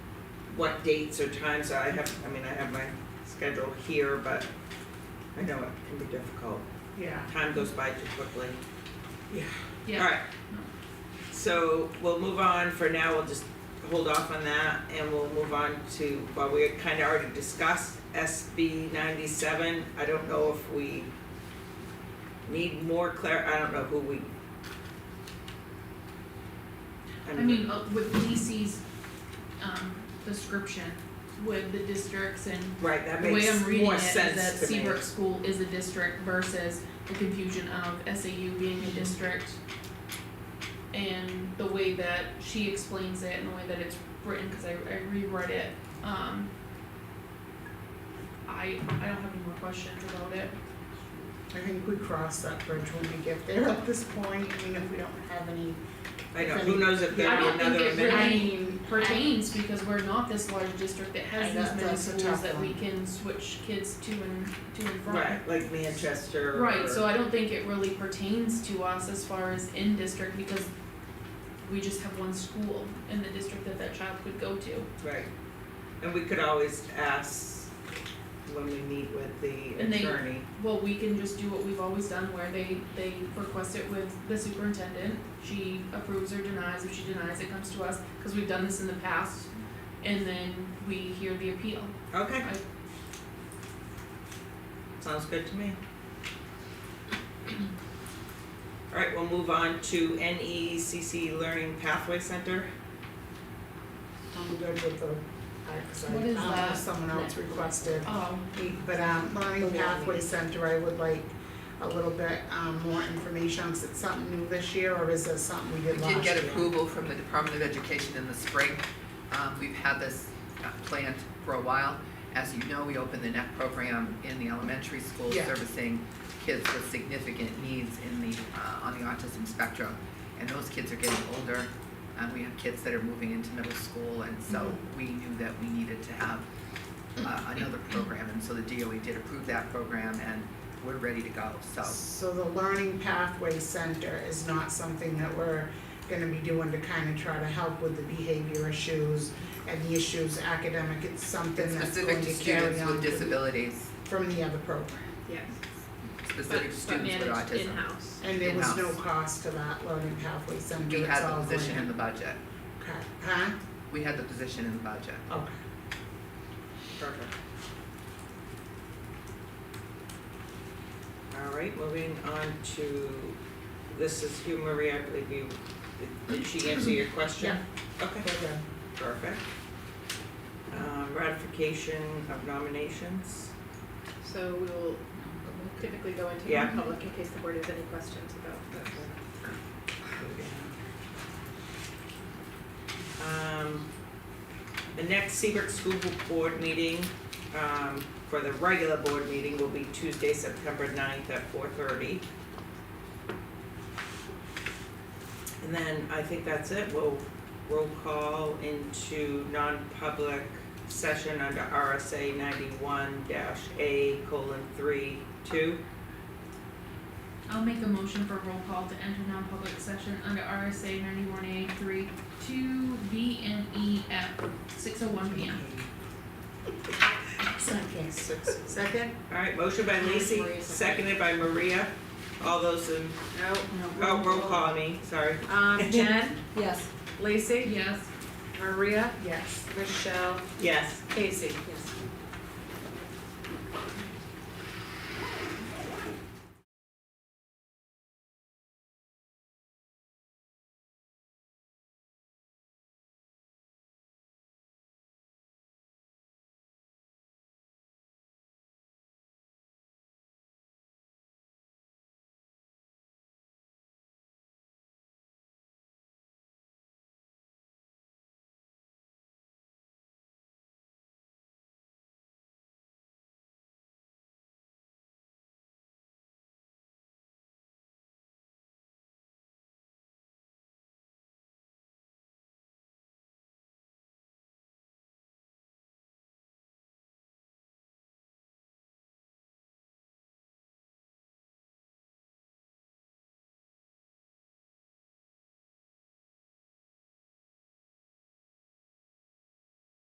what dates or times, I have, I mean, I have my schedule here, but I know it can be difficult, Yeah, time goes by too quickly. Yeah. yeah. Alright. So we'll move on for now, we'll just hold off on that and we'll move on to, well, we had kinda already discussed SB ninety-seven. I don't know if we need more clar, I don't know who we. I mean, uh, with Lisi's, um, description, with the districts and Right, that the way makes I'm reading more it is that sense to me. Seabrook School is a district versus the confusion of SAU being Mm-hmm. a district. And the way that she explains it and the way that it's written, cause I, I reread it, um. I, I don't have any more questions about it. I think we cross that bridge when we get there at this point, I mean, if we don't have any, I know, who knows if I there'll don't be think another it amendment. I Right. mean, pertains because we're not this large district that has And these that- many that's a schools tough that we one. can switch kids to and, to and from. Right, like Manchester or. Right, so I don't think it really pertains to us as far as in district because we just have one school in the district that that child could go to. Right, and we could always ask when we meet with the And they- attorney, Well, we can just do what we've always done where they, they request it with the superintendent. She approves or denies, if she denies, it comes to us, cause we've done this in the past. And then we hear the appeal. okay? I- Sounds good to me. Alright, we'll move on to NECC Learning Pathway Center, I'm good with the, I, 'cause I, What I is don't know that? if someone else requested. Oh, But, um, The Learning one. Pathway Center, I would like a little bit, um, more information, is it something new this year, or is it something we did We last year? did get approval from the Department of Education in the spring. Um, We've had this uh, planned for a while. As you know, we opened the NET program in the elementary school Yeah. servicing kids with significant needs in the, uh, on the autism spectrum. And those kids are getting older, and we have kids that are moving into middle school, and so Mm-hmm. we knew that we needed to have uh, another program. And so the DOE did approve that program, and we're ready to go, so. So the Learning Pathway Center is not something that we're gonna be doing to kinda try to help with the behavior issues and the issues academic, it's something that's Specific going to to carry students on with disabilities, from the other program. yes. But, specific but students with autism. managed in-house. And there was no In-house. cost to that Learning Pathway Center, We it's had all the going position in in. the budget. Okay, huh? We had the position in the budget. Okay. perfect. Alright, moving on to, this is Hugh Marie, I believe you, did- did she answer your question? Okay. We're good. Perfect. Um, ratification of nominations, So we will typically go into Yeah. non-public in case the board has any questions about the um, the next Seabrook School Board meeting, um, for the regular board meeting will be Tuesday, September 9th at four thirty. And then I think that's it, we'll roll call into non-public session under RSA ninety-one dash A colon three two. I'll make a motion for roll call to enter non-public session under RSA ninety-one A three two B and E at six oh one P M. Second. Second? Alright, motion by Lacy, Maria, second. seconded by Maria. All those in, oh, roll call I mean, sorry. No. Um, Jen, Yes. Lacey, Yes. Maria, Yes. Michelle, Yes, Casey. Yes.